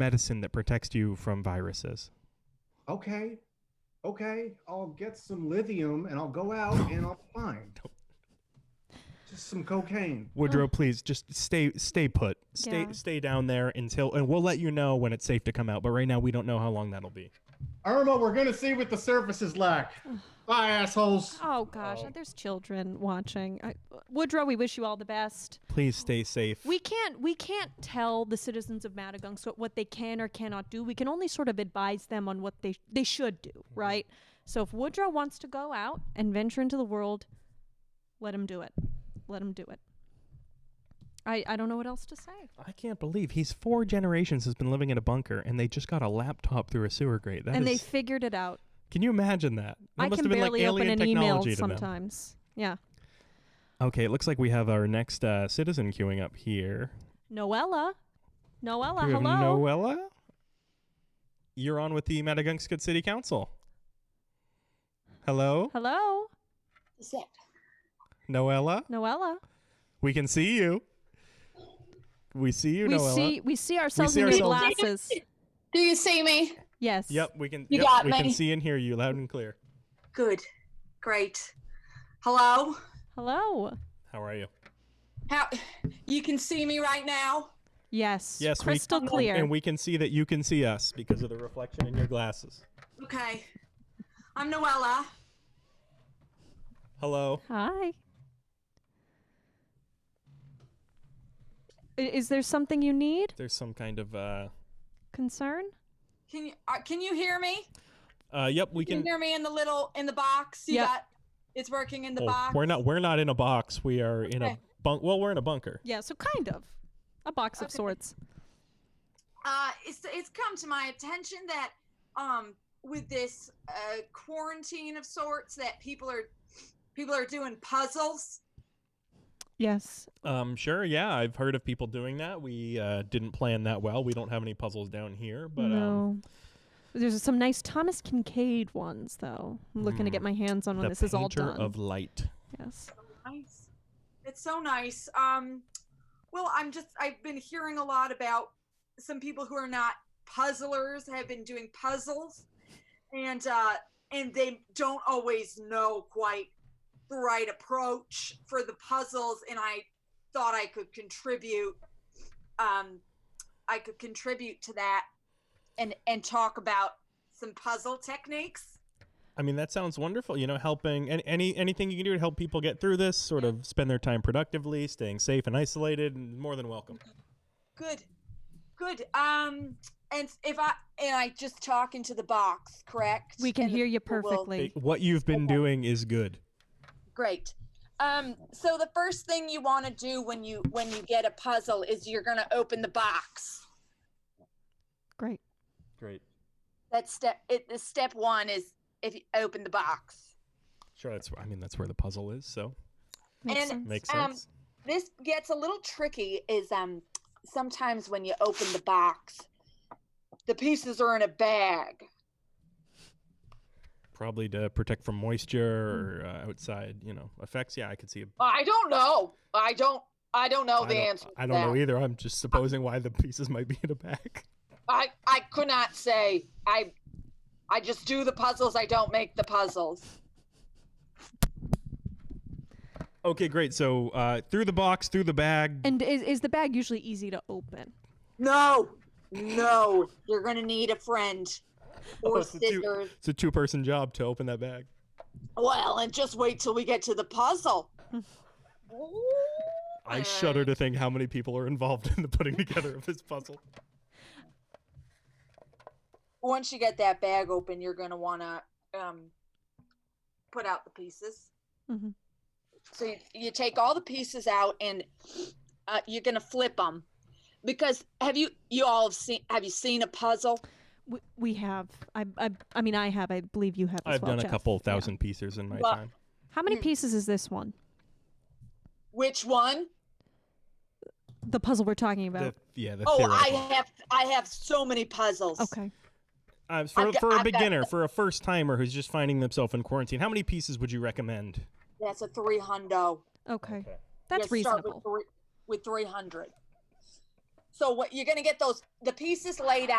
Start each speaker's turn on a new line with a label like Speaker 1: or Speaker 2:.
Speaker 1: medicine that protects you from viruses.
Speaker 2: Okay, okay, I'll get some lithium and I'll go out and I'll find just some cocaine.
Speaker 1: Woodrow, please just stay stay put. Stay
Speaker 3: Oh. Yeah.
Speaker 1: stay down there until and we'll let you know when it's safe to come out, but right now we don't know how long that'll be.
Speaker 2: Irma, we're gonna see what the surfaces lack. Bye, assholes.
Speaker 3: Oh gosh,
Speaker 1: Oh.
Speaker 3: there's children watching. I, Woodrow, we wish you all the best.
Speaker 1: Please stay safe.
Speaker 3: We can't we can't tell the citizens of Madagungscut what they can or cannot do. We can only sort of advise them on what they they should do,
Speaker 1: Mm-hmm.
Speaker 3: right? So if Woodrow wants to go out and venture into the world, let him do it. Let him do it. I I don't know what else to say.
Speaker 1: I can't believe he's four generations has been living in a bunker and they just got a laptop through a sewer grate. That
Speaker 3: and they
Speaker 1: is-
Speaker 3: figured it out.
Speaker 1: can you imagine that? That
Speaker 3: I
Speaker 1: must have
Speaker 3: can
Speaker 1: been
Speaker 3: barely
Speaker 1: like alien
Speaker 3: open an email
Speaker 1: technology to them.
Speaker 3: sometimes. Yeah.
Speaker 1: Okay, it looks like we have our next uh, citizen queuing up here.
Speaker 3: Noella. Noella,
Speaker 1: Do we have
Speaker 3: hello.
Speaker 1: Noella? You're on with the Madagungscut City Council. Hello,
Speaker 3: hello.
Speaker 4: Zip.
Speaker 1: Noella.
Speaker 3: Noella.
Speaker 1: We can see you. We see you,
Speaker 3: we
Speaker 1: Noella.
Speaker 3: see we see ourselves
Speaker 1: see
Speaker 3: in your
Speaker 1: ourselves-
Speaker 3: glasses.
Speaker 4: Do you see me?
Speaker 3: Yes.
Speaker 1: Yep, we can.
Speaker 4: You
Speaker 1: yep,
Speaker 4: got
Speaker 1: we can
Speaker 4: me.
Speaker 1: see and hear you loud and clear.
Speaker 4: Good. Great. Hello?
Speaker 3: Hello.
Speaker 1: How are you?
Speaker 4: How you can see me right now?
Speaker 3: Yes.
Speaker 1: Yes, we-
Speaker 3: Crystal clear.
Speaker 1: And we can see that you can see us because of the reflection in your glasses.
Speaker 4: Okay. I'm Noella.
Speaker 1: Hello.
Speaker 3: Hi. I- Is there something you need?
Speaker 1: There's some kind of. Uh,
Speaker 3: Concern?
Speaker 4: Can you uh, can you hear me?
Speaker 1: uh, yep, we
Speaker 4: Can you
Speaker 1: can.
Speaker 4: hear me in the little in the box? You
Speaker 3: Yep.
Speaker 4: got it's working in the
Speaker 1: Oh,
Speaker 4: box.
Speaker 1: we're not. We're not in a box. We are in a
Speaker 4: Okay.
Speaker 1: bunk. Well, we're in a bunker.
Speaker 3: Yeah, so kind of. A box of
Speaker 4: Okay.
Speaker 3: sorts.
Speaker 4: Uh it's it's come to my attention that um with this uh quarantine of sorts that people are people are doing puzzles.
Speaker 3: Yes.
Speaker 1: Um, sure. Yeah, I've heard of people doing that. We uh, didn't plan that well. We don't have any puzzles down here, but um,
Speaker 3: no. There's some nice Thomas Kincaid ones though. I'm looking to
Speaker 1: Hmm.
Speaker 3: get my hands on when
Speaker 1: the
Speaker 3: this is all
Speaker 1: painter
Speaker 3: done.
Speaker 1: of light.
Speaker 3: yes.
Speaker 4: Nice. It's so nice. Um, well, I'm just I've been hearing a lot about some people who are not puzzlers have been doing puzzles, and uh, and they don't always know quite the right approach for the puzzles. And I thought I could contribute. Um, I could contribute to that, and and talk about some puzzle techniques.
Speaker 1: I mean, that sounds wonderful. You know, helping any, any anything you can do to help people get through this, sort of spend their time productively, staying safe and isolated, and more than welcome.
Speaker 4: Good. Good. Um and if I and I just talk into the box, correct?
Speaker 3: We can
Speaker 4: And the
Speaker 3: hear you
Speaker 4: people will-
Speaker 3: perfectly.
Speaker 1: What you've been doing is good.
Speaker 4: Great. Um so the first thing you want to do when you when you get a puzzle is you're going to open the box.
Speaker 3: Great.
Speaker 1: Great.
Speaker 4: That's step it the step 1 is if you open the box.
Speaker 1: Sure. That's. I mean, that's where the puzzle is. So
Speaker 3: Makes
Speaker 4: And-
Speaker 3: sense.
Speaker 1: makes
Speaker 4: Um,
Speaker 1: sense.
Speaker 4: This gets a little tricky is um sometimes when you open the box the pieces are in a bag.
Speaker 1: Probably to protect from moisture or
Speaker 4: Hmm.
Speaker 1: uh, outside, you know, effects. Yeah, I could see. A,
Speaker 4: I don't know. I don't I don't know
Speaker 1: I
Speaker 4: Oh, the
Speaker 1: don't,
Speaker 4: answer. to
Speaker 1: I don't
Speaker 4: that.
Speaker 1: know either. I'm just supposing why the pieces might be in a bag.
Speaker 4: I I could not say. I I just do the puzzles. I don't make the puzzles.
Speaker 1: Okay, great. So uh, through the box, through the bag.
Speaker 3: And is, is the bag usually easy to open?
Speaker 4: No, no. You're gonna need a friend
Speaker 1: Oh,
Speaker 4: or
Speaker 1: it's a two-
Speaker 4: scissors.
Speaker 1: it's a two-person job to open that bag.
Speaker 4: Well, and just wait till we get to the puzzle.
Speaker 1: I shudder to think how many people are involved in the putting together of this puzzle.
Speaker 4: Once you get that bag open, you're gonna wanna um put out the pieces.
Speaker 3: Mhm.
Speaker 4: So you, you take all the pieces out and uh, you're gonna flip them because have you you all have seen have you seen a puzzle?
Speaker 3: We, we have. I, I, I mean, I have. I believe you have as
Speaker 1: I've
Speaker 3: well,
Speaker 1: done a
Speaker 3: Jeff.
Speaker 1: couple
Speaker 3: Yeah.
Speaker 1: thousand pieces in my
Speaker 4: Well-
Speaker 1: time.
Speaker 3: How many
Speaker 4: Mm.
Speaker 3: pieces is this one?
Speaker 4: Which one?
Speaker 3: The puzzle we're talking about.
Speaker 1: The- yeah, the
Speaker 4: Oh,
Speaker 1: theoretical.
Speaker 4: I have I have so many puzzles.
Speaker 3: okay.
Speaker 1: Uh, for,
Speaker 4: I've got-
Speaker 1: for a
Speaker 4: I've got-
Speaker 1: beginner, for a first timer who's just finding themselves in quarantine, how many pieces would you recommend?
Speaker 4: That's a three hundo.
Speaker 3: Okay. That's
Speaker 4: You start
Speaker 3: reasonable.
Speaker 4: With three, with three hundred. So what you're going to get those the pieces laid out.